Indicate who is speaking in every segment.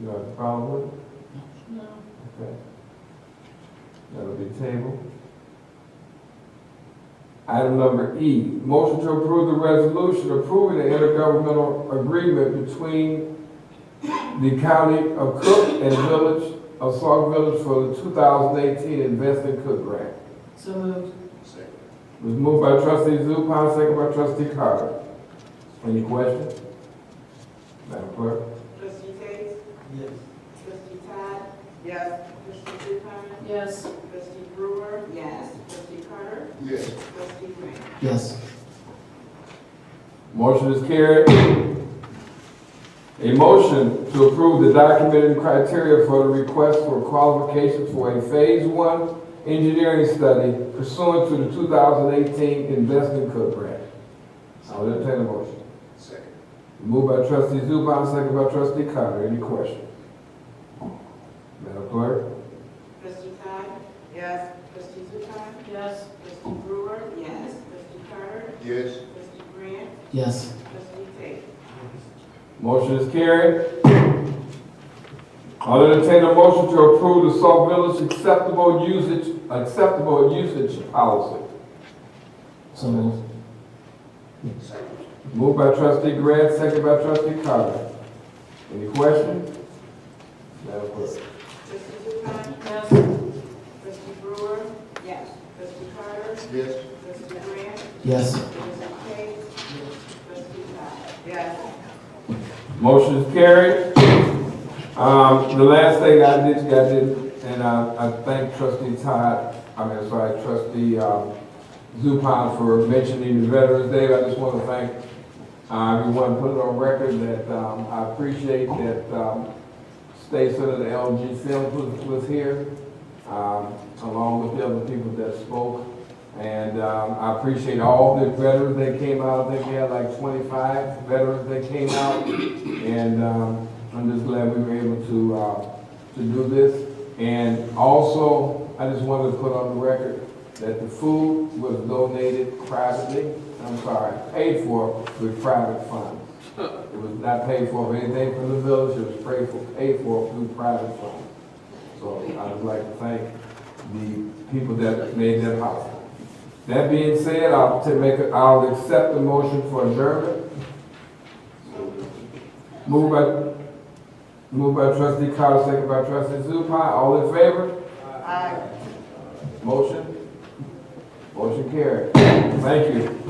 Speaker 1: You have a problem with it?
Speaker 2: No.
Speaker 1: Okay. That'll be tabled. Item number E, motion to approve the resolution approving the intergovernmental agreement between the County of Cook and Village of Sauk Village for the 2018 Invest in Cook Grant.
Speaker 2: So moved.
Speaker 1: It was moved by trustee Zupan, second by trustee Carter. Any questions? Madam Clerk?
Speaker 3: Trustee Tate?
Speaker 4: Yes.
Speaker 3: Trustee Todd?
Speaker 2: Yes.
Speaker 3: Trustee Zupan?
Speaker 2: Yes.
Speaker 3: Trustee Brewer? Yes. Trustee Carter?
Speaker 1: Yes.
Speaker 3: Trustee Grant?
Speaker 4: Yes.
Speaker 1: Motion is carried. A motion to approve the documented criteria for the request for qualifications for a Phase One engineering study pursuant to the 2018 Investment Cook Grant. I'll entertain a motion.
Speaker 4: Second.
Speaker 1: Moved by trustee Zupan, second by trustee Carter. Any questions? Madam Clerk?
Speaker 3: Trustee Todd?
Speaker 2: Yes.
Speaker 3: Trustee Zupan?
Speaker 2: Yes.
Speaker 3: Trustee Brewer? Yes. Trustee Carter?
Speaker 4: Yes.
Speaker 3: Trustee Grant?
Speaker 4: Yes.
Speaker 3: Trustee Tate?
Speaker 1: Motion is carried. I'll entertain a motion to approve the Sauk Village acceptable usage, acceptable usage policy.
Speaker 4: So moved.
Speaker 1: Moved by trustee Grant, second by trustee Carter. Any questions? Madam Clerk.
Speaker 3: Trustee Zupan?
Speaker 2: Yes.
Speaker 3: Trustee Brewer?
Speaker 2: Yes.
Speaker 3: Trustee Carter?
Speaker 4: Yes.
Speaker 3: Trustee Grant?
Speaker 4: Yes.
Speaker 3: Trustee Tate? Trustee Todd?
Speaker 2: Yes.
Speaker 1: Motion is carried. Um, the last thing I did, I did, and I, I thank trustee Todd, I mean, sorry, trustee, um, Zupan for mentioning the Veterans Day. I just want to thank, uh, everyone, put it on record that, um, I appreciate that, um, State Senator LG Sims was, was here, um, along with the other people that spoke. And, um, I appreciate all the veterans that came out. I think we had like twenty-five veterans that came out. And, um, I'm just glad we were able to, uh, to do this. And also, I just wanted to put on the record that the food was donated privately, I'm sorry, paid for with private funds. It was not paid for with anything from the village, it was paid for, paid for through private funds. So I would like to thank the people that made that possible. That being said, I'll to make, a- I'll accept the motion for adjournment. Moved by, moved by trustee Carter, second by trustee Zupan, all in favor?
Speaker 2: Aye.
Speaker 1: Motion? Motion carried. Thank you.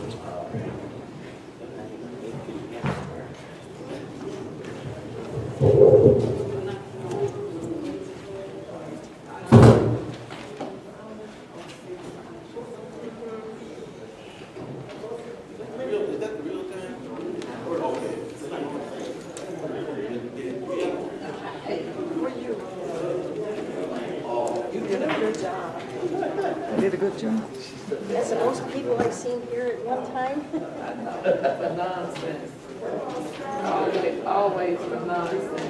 Speaker 5: You did a good job.
Speaker 6: I did a good job.
Speaker 5: That's the most people I've seen here at one time.
Speaker 6: For nonsense. Always, always for nonsense.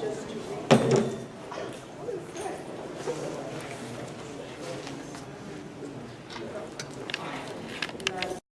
Speaker 3: Just to